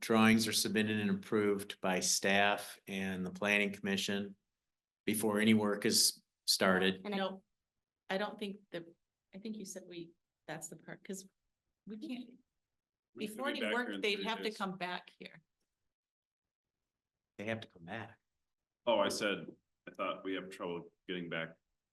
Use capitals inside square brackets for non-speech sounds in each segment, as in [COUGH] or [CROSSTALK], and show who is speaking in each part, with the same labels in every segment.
Speaker 1: Drawings are submitted and approved by staff and the planning commission before any work is started.
Speaker 2: And I-
Speaker 3: No, I don't think the, I think you said we, that's the part, because we can't,
Speaker 4: We could
Speaker 3: before
Speaker 4: be
Speaker 3: any
Speaker 4: back
Speaker 3: work,
Speaker 4: here in
Speaker 3: they'd
Speaker 4: three
Speaker 3: have to
Speaker 4: days.
Speaker 3: come back here.
Speaker 1: They have to come back.
Speaker 4: Oh, I said, I thought we have trouble getting back,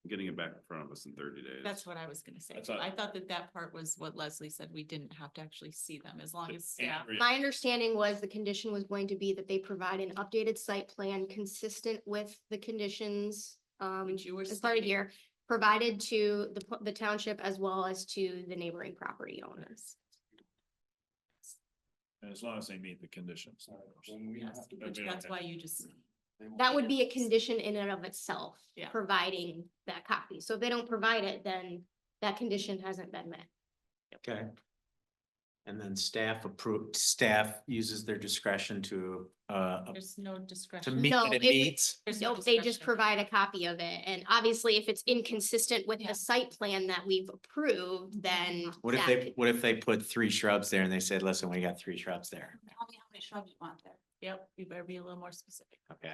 Speaker 4: getting it back in front of us in thirty days.
Speaker 3: That's what I was gonna say.
Speaker 4: I thought-
Speaker 3: I thought that that part was what Leslie said. We didn't have to actually see them as long as
Speaker 4: And
Speaker 3: staff.
Speaker 4: re-
Speaker 2: My understanding was the condition was going to be that they provide an updated site plan consistent with the conditions. Um,
Speaker 3: Which you were
Speaker 2: as part
Speaker 3: stating.
Speaker 2: of here, provided to the, pu- the township as well as to the neighboring property owners.
Speaker 5: As long as they meet the conditions. of course.
Speaker 3: Yes, Which that's why you just,
Speaker 2: That would be a
Speaker 3: Yes.
Speaker 2: condition in and of itself.
Speaker 3: Yeah.
Speaker 2: Providing that copy. So if they don't provide it, then that condition hasn't been met.
Speaker 1: Okay. And then staff approved, staff uses their discretion to, uh,
Speaker 3: there's no
Speaker 1: to
Speaker 3: discretion.
Speaker 1: meet
Speaker 2: No,
Speaker 1: what it
Speaker 2: it-
Speaker 1: meets.
Speaker 3: There's no
Speaker 2: Nope, they just
Speaker 3: discretion.
Speaker 2: provide a copy of it. And obviously, if it's inconsistent with
Speaker 3: Yeah.
Speaker 2: the site plan that we've approved, then.
Speaker 1: What if
Speaker 2: that
Speaker 1: they,
Speaker 2: could-
Speaker 1: what if they put three shrubs there and they said, listen, we got three shrubs there,
Speaker 3: Tell me how many shrubs you want there. Yep, you better be a little more specific.
Speaker 1: okay?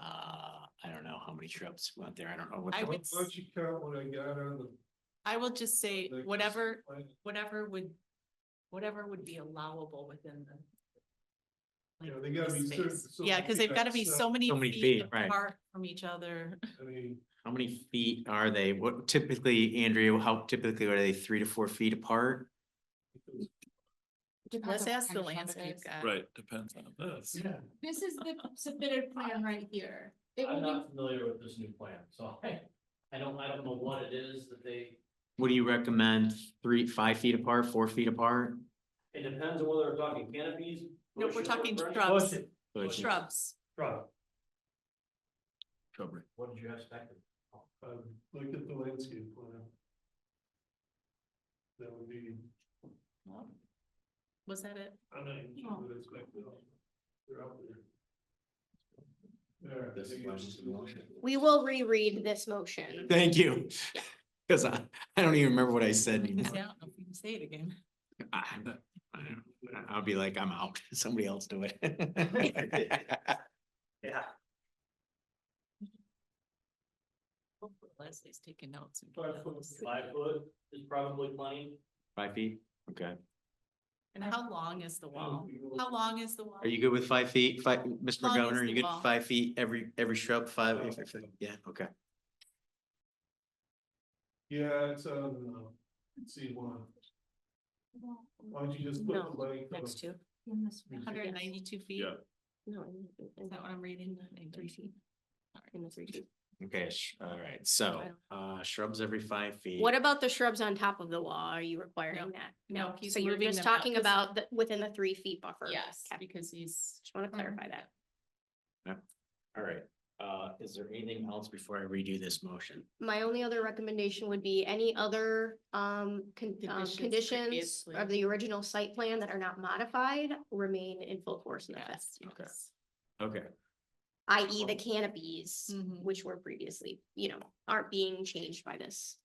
Speaker 1: Uh, I don't know how many shrubs went there, I don't know what.
Speaker 3: I
Speaker 1: the-
Speaker 3: would,
Speaker 6: Why don't you count what I got on the?
Speaker 3: I will just say
Speaker 6: the-
Speaker 3: whatever, whatever would, whatever would be allowable within the.
Speaker 6: You know,
Speaker 3: like,
Speaker 6: they gotta
Speaker 3: the
Speaker 6: be certain-
Speaker 3: space.
Speaker 6: so
Speaker 3: Yeah,
Speaker 6: many
Speaker 3: because they've gotta be
Speaker 6: feet,
Speaker 3: so many
Speaker 1: So many
Speaker 3: feet
Speaker 1: feet, right.
Speaker 3: apart from each other.
Speaker 6: I mean,
Speaker 1: How many feet are they? What typically, Andrea, how typically are they three to four feet apart?
Speaker 6: because-
Speaker 3: Let's ask the landscape guy.
Speaker 4: Right, depends on this.
Speaker 6: yeah,
Speaker 7: This is the submitted plan right here. It
Speaker 8: I'm
Speaker 7: will be,
Speaker 8: not familiar with this new plan, so [LAUGHS] I, I don't, I don't know what it is that they,
Speaker 1: What do you recommend? Three, five feet apart, four feet apart?
Speaker 8: it depends on whether we're talking canopies.
Speaker 3: No, we're
Speaker 8: bushes,
Speaker 3: talking
Speaker 8: branch-
Speaker 3: shrubs.
Speaker 8: bushes,
Speaker 1: Bushes.
Speaker 3: Shrubs.
Speaker 8: Shrub,
Speaker 4: Cover.
Speaker 8: what did you expect?
Speaker 6: um, Look at the landscape plan. That would be,
Speaker 3: Was that it?
Speaker 6: I'm not even sure what it's like, though. they're out there. There.
Speaker 8: This
Speaker 6: I think
Speaker 8: one
Speaker 6: it's-
Speaker 8: is the motion.
Speaker 2: We will reread this motion.
Speaker 1: Thank you. [LAUGHS] Cause I, I don't even remember what I said.
Speaker 3: I don't [LAUGHS]
Speaker 1: anymore.
Speaker 3: know if we can say it again.
Speaker 1: I- I don't- I'll be like, I'm out. [LAUGHS] Somebody else do it.
Speaker 8: Yeah.
Speaker 3: Hopefully Leslie's taking notes. and
Speaker 6: Five
Speaker 3: getting
Speaker 6: foot,
Speaker 3: those.
Speaker 8: Five foot is probably plenty.
Speaker 1: Five feet? Okay.
Speaker 3: And how long is the wall? How long is the wall?
Speaker 1: Are you good with five feet? Five, Mr.
Speaker 3: Long
Speaker 1: McGovern,
Speaker 3: as
Speaker 1: are you
Speaker 3: the
Speaker 1: good
Speaker 3: wall.
Speaker 1: with five feet every, every shrub, five?
Speaker 6: Oh.
Speaker 1: Yeah, okay.
Speaker 6: Yeah, it's on, uh, C one, why don't you just put
Speaker 2: No,
Speaker 6: the length of.
Speaker 3: Next to,
Speaker 7: in this one.
Speaker 3: hundred and ninety-two feet?
Speaker 4: Yeah.
Speaker 2: No, in- in- in
Speaker 3: Is that what I'm reading?
Speaker 2: Three feet. in the three feet.
Speaker 1: Okay, sh- all right. So, uh, shrubs every five feet.
Speaker 2: What about the shrubs on top of the wall? Are you requiring
Speaker 3: No,
Speaker 2: that?
Speaker 3: no, he's
Speaker 2: So you're
Speaker 3: moving
Speaker 2: just
Speaker 3: them out.
Speaker 2: talking
Speaker 3: This-
Speaker 2: about the, within the three feet buffer?
Speaker 3: Yes,
Speaker 2: Okay,
Speaker 3: because he's.
Speaker 2: Just want to clarify that.
Speaker 1: All right, uh, is there anything else before I redo this motion?
Speaker 2: My only other recommendation would be any other um con- um,
Speaker 3: Conditions
Speaker 2: conditions
Speaker 3: previously.
Speaker 2: of the original site plan that are not modified remain in full force and effect.
Speaker 3: Yes,
Speaker 1: Okay.
Speaker 3: yes.
Speaker 1: Okay,
Speaker 2: i.e. the canopies,
Speaker 3: Mhm.
Speaker 2: which were previously, you know, aren't being changed by this.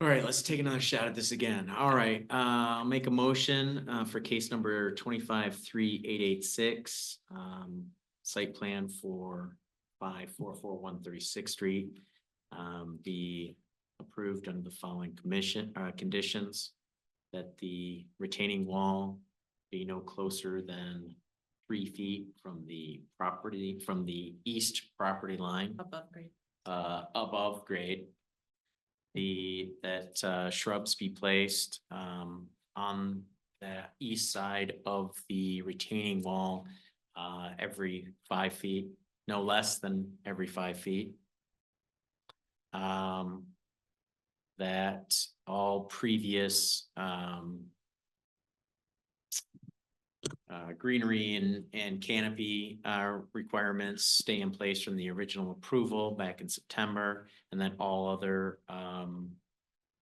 Speaker 1: all right, let's take another shot at this again. All right, uh, I'll make a motion, uh, for case number twenty-five, three, eight, eight, six. Um, site plan for five, four, four, one, thirty-sixth street. Um, be approved under the following commission, uh, conditions. That the retaining wall be no closer than three feet from the property, from the east property line.
Speaker 3: Above grade.
Speaker 1: uh, above grade. The, that uh, shrubs be placed, um, on the east side of the retaining wall, uh, every five feet, no less than every five feet. Um, that all previous, um, uh, greenery and, and canopy, uh, requirements stay in place from the original approval back in September. And then all other, um,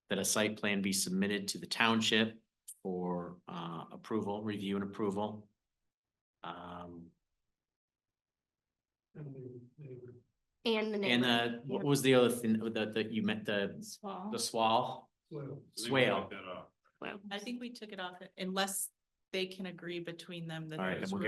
Speaker 1: that a site plan be submitted to the township for, uh, approval, review and approval. Um,
Speaker 6: And the neighbor.
Speaker 2: And the
Speaker 1: and uh,
Speaker 2: neighbor,
Speaker 1: the, what was the other thing that, that you meant, the, the swall?
Speaker 6: Well,
Speaker 4: I think we
Speaker 1: Swale.
Speaker 4: took that off.
Speaker 2: well,
Speaker 3: I think we took it off unless
Speaker 1: they can agree between them that
Speaker 3: All right,
Speaker 1: those
Speaker 3: then we'll
Speaker 1: were-